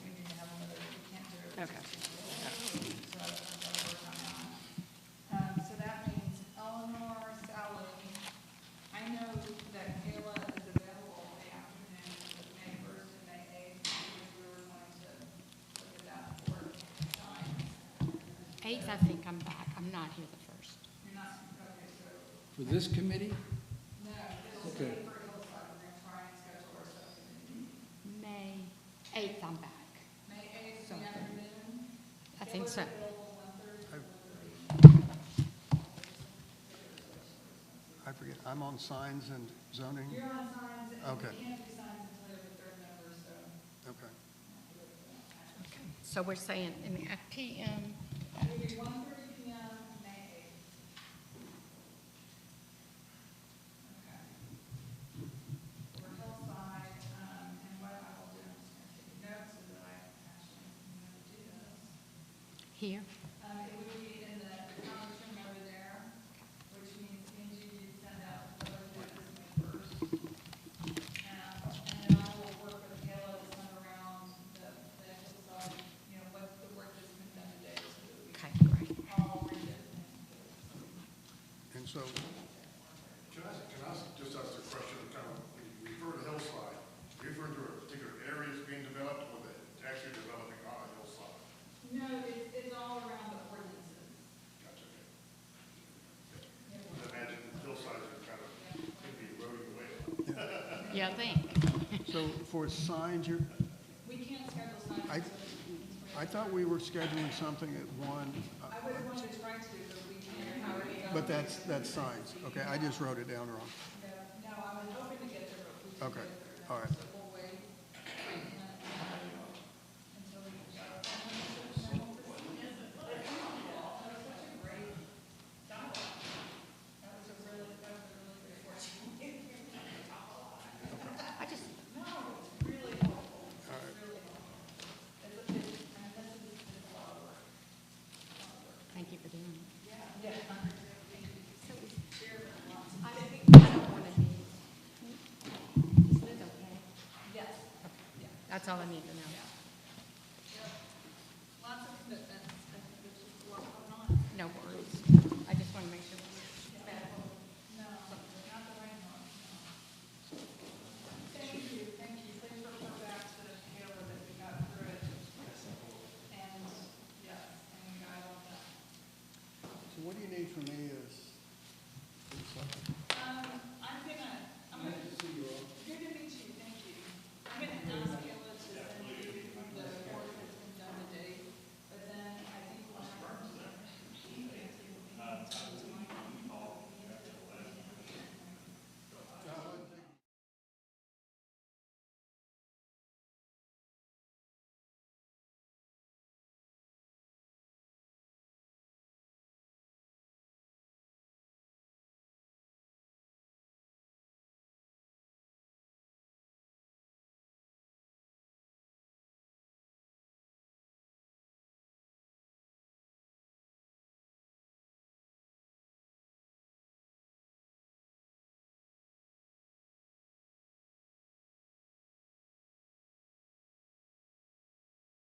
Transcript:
Okay. Um, so that means Eleanor, Sally, I know that Kayla is available in the afternoon, of May first and May eighth, because we were going to look at that for times. Eighth, I think I'm back. I'm not here the first. You're not, okay, so, For this committee? no, it'll Okay. stay for Hillside, we're gonna try and schedule our subcommittee. May eighth, I'm back. May eighth, in the Something. afternoon, I think so. I forget, I'm on signs and zoning? you're on signs, and Okay. we can't do signs until the third member, so. Okay. So we're saying in the PM, It'll be one thirty P M, May eighth. Okay. For Hillside, um, and what I will do, I'm just gonna take notes so that I actually know to do this. here. Um, it would be in the conference room over there, which means Angie, you send out the letters first. Um, and then I will work with Kayla to send around the, the Hillside, you know, what's the work that's been done today, so that we Okay, great. all read it and And so, Can I, can I just ask a question, kind of, when you refer to hillside, are you referring to a particular area that's being developed or that it's actually developing on a hillside? No, it's, it's all around the ordinances. Gotcha, okay. I imagine hillsides are kind of, could be eroding away. Yeah, I think. so for signs, you're, We can't schedule signs. I, I thought we were scheduling something at one, uh, I would want to try to, but we can't, how are we going? but that's, that's signs. Okay, I just wrote it down wrong. No, I was hoping to get there, but we didn't Okay, get there. all right. So we'll wait. Until we can shut down. That was such a great dialogue. That was a really, that was a really great work. I just, No, it's really helpful, it's really helpful. It's, it's, and this is, it's a lot of work. thank you for doing it. Yeah. I I don't want to be. Is Liz okay? Yes. That's all I need to know.